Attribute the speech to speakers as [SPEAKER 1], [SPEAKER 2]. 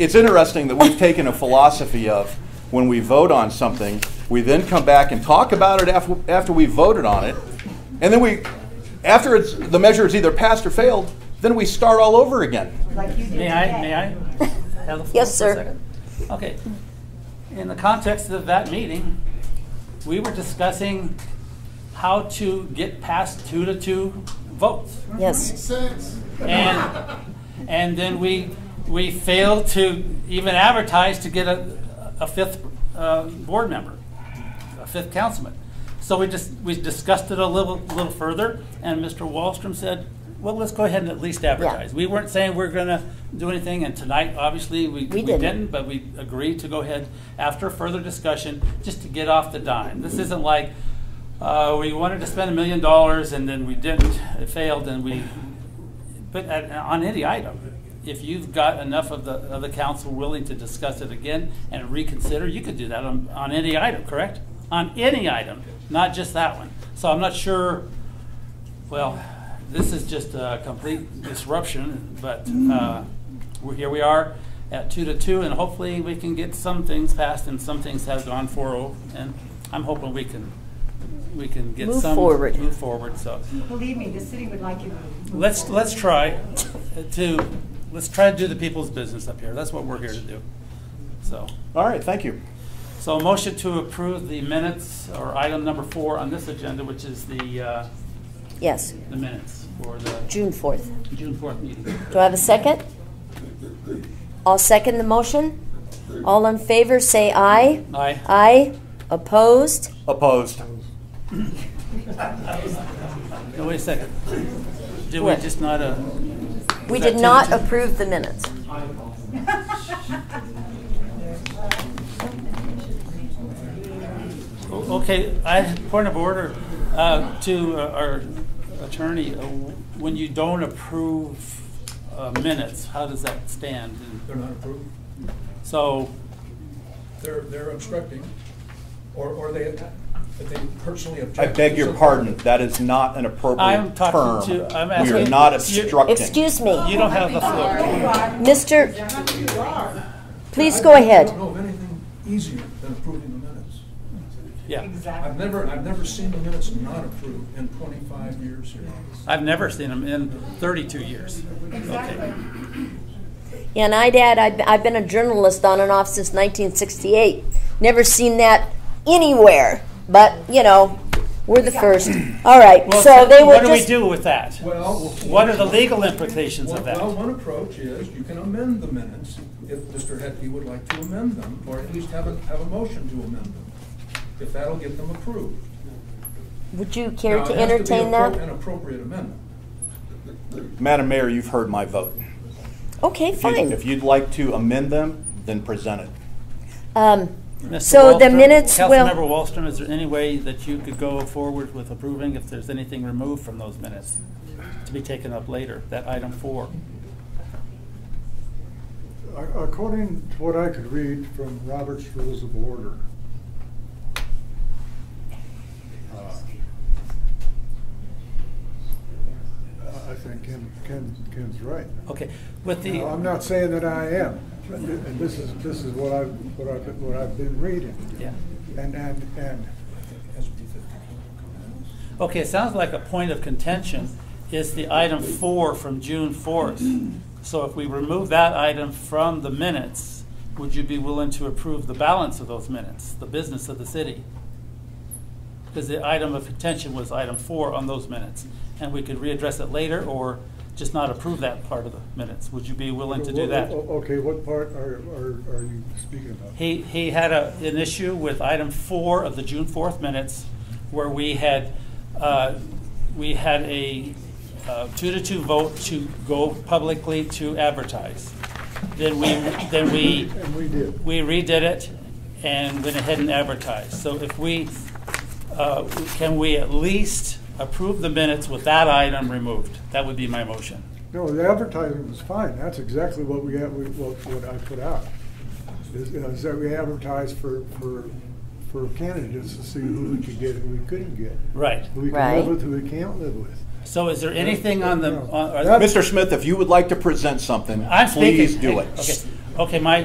[SPEAKER 1] it's interesting that we've taken a philosophy of when we vote on something, we then come back and talk about it after, after we voted on it, and then we, after it's, the measure is either passed or failed, then we start all over again.
[SPEAKER 2] like you did
[SPEAKER 3] May I,
[SPEAKER 2] today.
[SPEAKER 3] may I have the floor?
[SPEAKER 4] Yes,
[SPEAKER 3] for a
[SPEAKER 4] sir.
[SPEAKER 3] second? Okay. In the context of that meeting, we were discussing how to get past two to two votes.
[SPEAKER 4] Yes.
[SPEAKER 3] And, and then we, we failed to even advertise to get a, a fifth uh, board member, a fifth councilman. So we just, we discussed it a little, little further, and Mr. Wallstrom said, well, let's go ahead and at least advertise. We weren't saying we're gonna do anything, and tonight, obviously, we, we
[SPEAKER 4] didn't.
[SPEAKER 3] didn't, but we agreed to go ahead after further discussion, just to get off the dime. This isn't like, uh, we wanted to spend a million dollars and then we didn't, it failed, and we, but at- on any item, if you've got enough of the, of the council willing to discuss it again and reconsider, you could do that on, on any item, correct? On any item, not just that one. So I'm not sure, well, this is just a complete disruption, but
[SPEAKER 4] Mm.
[SPEAKER 3] uh, we're- here we are at two to two, and hopefully we can get some things passed and some things have gone 4-0, and I'm hoping we can, we can get
[SPEAKER 4] Move
[SPEAKER 3] some.
[SPEAKER 4] forward.
[SPEAKER 3] Move forward, so.
[SPEAKER 2] Believe me, the city would like you to move
[SPEAKER 3] Let's,
[SPEAKER 2] forward.
[SPEAKER 3] let's try to, let's try to do the people's business up here. That's what we're here to do. So,
[SPEAKER 1] All right, thank you.
[SPEAKER 3] so a motion to approve the minutes or item number four on this agenda, which is the, uh,
[SPEAKER 4] Yes.
[SPEAKER 3] the minutes for the
[SPEAKER 4] June 4th.
[SPEAKER 3] June fourth meeting.
[SPEAKER 4] Do I have a second? I'll second the motion. All in favor, say aye.
[SPEAKER 3] Aye.
[SPEAKER 4] Aye. Opposed?
[SPEAKER 1] Opposed.
[SPEAKER 3] No, wait a second. Did we
[SPEAKER 4] What?
[SPEAKER 3] just not, uh,
[SPEAKER 4] We
[SPEAKER 3] that
[SPEAKER 4] did
[SPEAKER 3] two
[SPEAKER 4] not
[SPEAKER 3] to two?
[SPEAKER 4] approve the minutes.
[SPEAKER 3] o- okay, I, point of order, uh, to uh, our attorney, uh, when you don't approve uh, minutes, how does that stand?
[SPEAKER 5] They're not approved.
[SPEAKER 3] So,
[SPEAKER 5] They're, they're obstructing, or, or they, they personally
[SPEAKER 1] I
[SPEAKER 5] object.
[SPEAKER 1] beg your pardon, that is not an appropriate
[SPEAKER 3] I'm talking
[SPEAKER 1] term.
[SPEAKER 3] to- I'm
[SPEAKER 1] We are
[SPEAKER 3] asking-
[SPEAKER 1] not
[SPEAKER 3] you-
[SPEAKER 1] obstructing.
[SPEAKER 4] Excuse
[SPEAKER 3] You
[SPEAKER 4] me,
[SPEAKER 3] don't have the floor.
[SPEAKER 4] Mr., please go ahead.
[SPEAKER 5] I don't know of anything easier than approving the minutes.
[SPEAKER 3] Yeah.
[SPEAKER 5] I've
[SPEAKER 2] Exactly.
[SPEAKER 5] never, I've never seen the minutes not approved in twenty-five years here.
[SPEAKER 3] I've never seen them in 32 years. Okay.
[SPEAKER 4] Yeah, And I'd add, I've, I've been a journalist on and off since 1968. Never seen that anywhere, but, you know, we're the first. All right,
[SPEAKER 3] Well,
[SPEAKER 4] so they
[SPEAKER 3] What
[SPEAKER 4] would
[SPEAKER 3] do we
[SPEAKER 4] just,
[SPEAKER 3] do with that?
[SPEAKER 5] Well.
[SPEAKER 3] What are the legal implications
[SPEAKER 5] Well,
[SPEAKER 3] of
[SPEAKER 5] well,
[SPEAKER 3] that?
[SPEAKER 5] one approach is you can amend the minutes if Mr. Hetke would like to amend them, or at least have a, have a motion to amend them, if that'll get them approved.
[SPEAKER 4] would you care
[SPEAKER 5] Now,
[SPEAKER 4] to
[SPEAKER 5] it has be
[SPEAKER 4] entertain
[SPEAKER 5] appro- An
[SPEAKER 4] that?
[SPEAKER 5] appropriate amendment.
[SPEAKER 1] Madam Mayor, you've heard my vote.
[SPEAKER 4] Okay,
[SPEAKER 1] If you-
[SPEAKER 4] fine.
[SPEAKER 1] If you'd like to amend them, then present it.
[SPEAKER 4] Um,
[SPEAKER 3] Mr.
[SPEAKER 4] So the
[SPEAKER 3] Wallstrom-
[SPEAKER 4] minutes will-
[SPEAKER 3] Councilmember Wallstrom, is there any way that you could go forward with approving if there's anything removed from those minutes to be taken up later, that item four?
[SPEAKER 6] Ac- According to what I could read from Robert's Rules of Order, uh, I think Ken, Ken, Ken's right.
[SPEAKER 3] Okay, with the.
[SPEAKER 6] Now, I'm not saying that I am, but thi- and this is, this is what I've, what I've, what I've been reading.
[SPEAKER 3] Yeah.
[SPEAKER 6] And, and, and
[SPEAKER 3] Okay, it sounds like a point of contention is the item four from June fourth. So if we remove that item from the minutes, would you be willing to approve the balance of those minutes, the business of the city? Because the item of contention was item four on those minutes, and we could readdress it later or just not approve that part of the minutes. Would you be willing to do that?
[SPEAKER 6] O- Okay, what part are, are, are you speaking about?
[SPEAKER 3] He, he had a, an issue with item four of the June fourth minutes, where we had, uh, we had a uh, two to two vote to go publicly to advertise. Then we, then we,
[SPEAKER 6] And we did.
[SPEAKER 3] we redid it and went ahead and advertised. So if we, uh, can we at least approve the minutes with that item removed? That would be my motion.
[SPEAKER 6] No, the advertising was fine. That's exactly what we, had- we- what, what I put out. Is, is that we advertised for, for, for candidates to see who we could get and who we couldn't get.
[SPEAKER 3] Right.
[SPEAKER 6] Who we can
[SPEAKER 4] Right.
[SPEAKER 6] live with, who we can't live with.
[SPEAKER 3] So is there anything on the, on- are there-
[SPEAKER 6] That's-
[SPEAKER 1] Mr. Smith, if you would like to present something,
[SPEAKER 3] I'm speaking.
[SPEAKER 1] please do
[SPEAKER 3] Okay.
[SPEAKER 1] it.
[SPEAKER 3] Okay, my